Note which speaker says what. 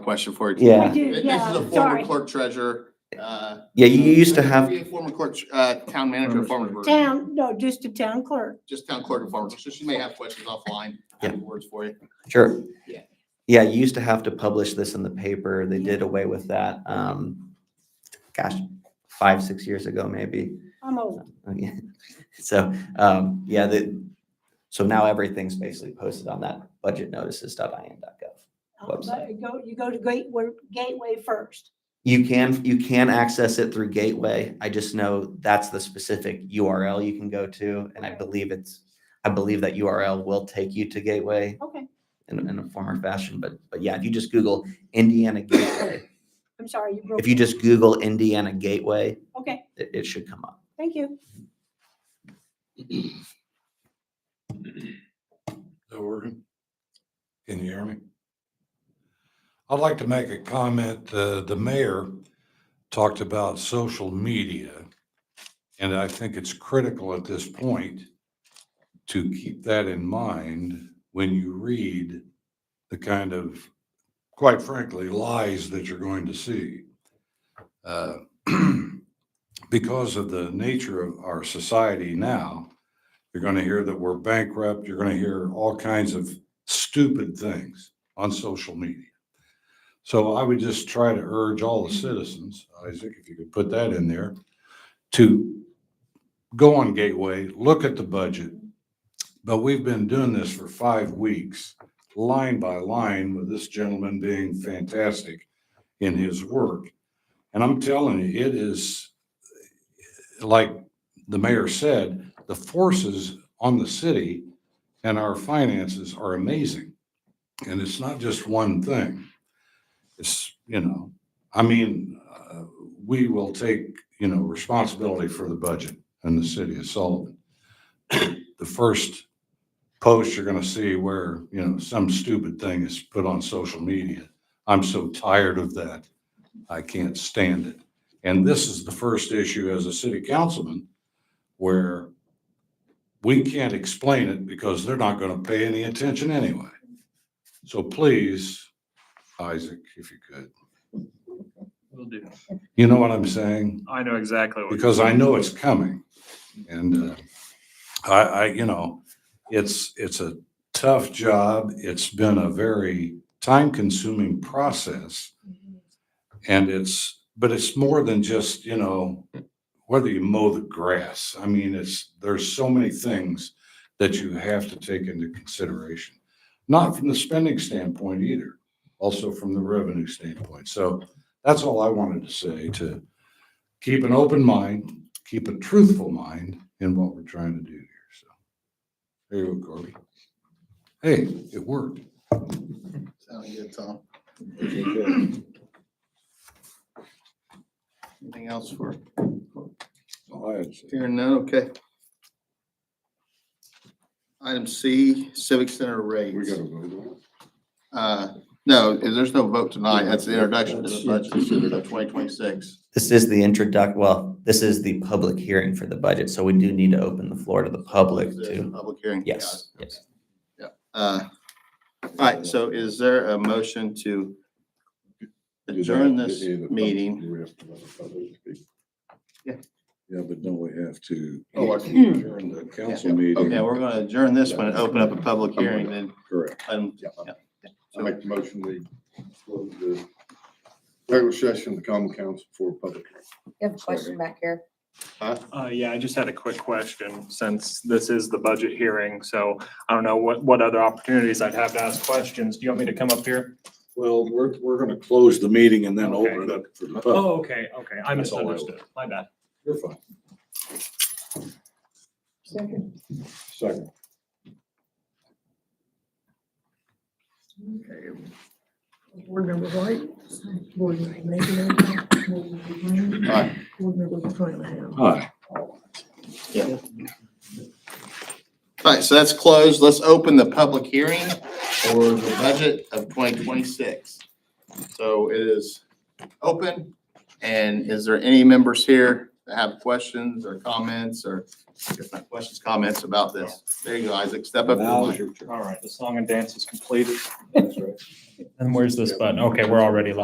Speaker 1: question for you.
Speaker 2: Yeah.
Speaker 3: I do,
Speaker 1: This
Speaker 3: yeah,
Speaker 1: is a former
Speaker 3: sorry.
Speaker 1: clerk treasurer. uh,
Speaker 2: Yeah, you used to
Speaker 1: be
Speaker 2: have,
Speaker 1: a Former clerk, uh, town manager, of Farmersburg.
Speaker 3: Town, no, just the town clerk.
Speaker 1: just town clerk of Farmersburg. So she may have questions offline. I have Words for you.
Speaker 2: sure.
Speaker 1: Yeah.
Speaker 2: Yeah, you used to have to publish this in the paper. They did away with that. Um, gosh, five, six years ago, maybe.
Speaker 3: I'm old.
Speaker 2: Okay. So, um, yeah, the, so now everything's basically posted on that budget budgetnotices.in.gov.
Speaker 3: Uh, but You go, you go to Gateway, Gateway first.
Speaker 2: You can, you can access it through Gateway. I just know that's the specific URL you can go to. And I
Speaker 3: Okay.
Speaker 2: believe it's, I believe that URL will take you to Gateway
Speaker 3: Okay,
Speaker 2: in, in a form or fashion. But, but yeah, if you just Google Indiana Gateway,
Speaker 3: I'm sorry, you broke.
Speaker 2: if you just Google Indiana Gateway,
Speaker 3: Okay,
Speaker 2: it, it should come up.
Speaker 3: thank you.
Speaker 4: So we're, can you hear me? I'd like to make a comment. Uh, the mayor talked about social media. And I think it's critical at this point to keep that in mind when you read the kind of, quite frankly, lies that you're going to see. Uh, Because of the nature of our society now, you're going to hear that we're bankrupt. You're going to hear all kinds of stupid things on social media. So I would just try to urge all the citizens, Isaac, if you could put that in there, to go on Gateway, look at the budget. But we've been doing this for five weeks, line by line, with this gentleman being fantastic in his work. And I'm telling you, it is like the mayor said, the forces on the city and our finances are amazing. And it's not just one thing. It's, you know, I mean, uh, we will take, you know, responsibility for the budget in the city of Sullivan. The first post you're going to see where, you know, some stupid thing is put on social media. I'm so tired of that. I can't stand it. And this is the first issue as a city councilman where we can't explain it because they're not going to pay any attention anyway. So please, Isaac, if you could,
Speaker 5: Will do.
Speaker 4: you know what I'm saying?
Speaker 5: I know exactly what.
Speaker 4: Because I know it's coming. And uh, I, I, you know, it's, it's a tough job. It's been a very time-consuming process. And it's, but it's more than just, you know, whether you mow the grass. I mean, it's, there's so many things that you have to take into consideration. Not from the spending standpoint either, also from the revenue standpoint. So that's all I wanted to say, to keep an open mind, keep a truthful mind in what we're trying to do here, so. There you go, Corby. Hey, it worked.
Speaker 1: Sound good, Tom? Anything else for,
Speaker 4: All I had to say.
Speaker 1: hearing none, okay. Item C, Civic Center rates.
Speaker 6: We gotta vote on it.
Speaker 1: Uh, no, there's no vote tonight. That's the introduction to the budget of twenty twenty-six.
Speaker 2: This is the introduct, well, this is the public hearing for the budget, so we do need to open the floor to the public to,
Speaker 1: Public hearing.
Speaker 2: yes, yes.
Speaker 1: Uh, All right, so is there a motion to
Speaker 6: Do they-
Speaker 1: adjourn
Speaker 6: do
Speaker 1: this
Speaker 6: they have a pub-
Speaker 1: meeting?
Speaker 6: Do we have to let the public speak?
Speaker 1: Yeah.
Speaker 6: Yeah, but don't we have to
Speaker 1: Oh, I-
Speaker 6: adjourn the council meeting?
Speaker 1: Okay, we're going to adjourn this one and open up a public hearing then.
Speaker 6: Correct.
Speaker 1: um,
Speaker 6: Yeah.
Speaker 1: yeah.
Speaker 6: I make the motion, we close the regular session of the common council for public. hearing.
Speaker 7: You have a question back here.
Speaker 5: Uh, yeah, I just had a quick question since this is the budget hearing. So I don't know what, what other opportunities I'd have to ask questions. Do you want me to come up here?
Speaker 6: Well, we're, we're gonna close the meeting and then
Speaker 5: Okay.
Speaker 6: open it up for the public.
Speaker 5: Oh, okay, okay. I
Speaker 6: That's all I
Speaker 5: misunderstood. My bad.
Speaker 6: You're fine. Second.
Speaker 8: Board member White, board member Mayberry, board member Green,
Speaker 1: Aye.
Speaker 8: board member Monahan.
Speaker 4: Hi.
Speaker 1: All right, so that's closed. Let's open the public hearing for the budget of twenty twenty-six. So it is open, and is there any members here that have questions or comments or, I guess not questions, comments about this. There you go, Isaac, step up. to the
Speaker 7: Now
Speaker 1: mic.
Speaker 7: is your turn.
Speaker 5: All right, the song and dance is completed.
Speaker 7: That's right.
Speaker 5: And where's this button? Okay, we're already live.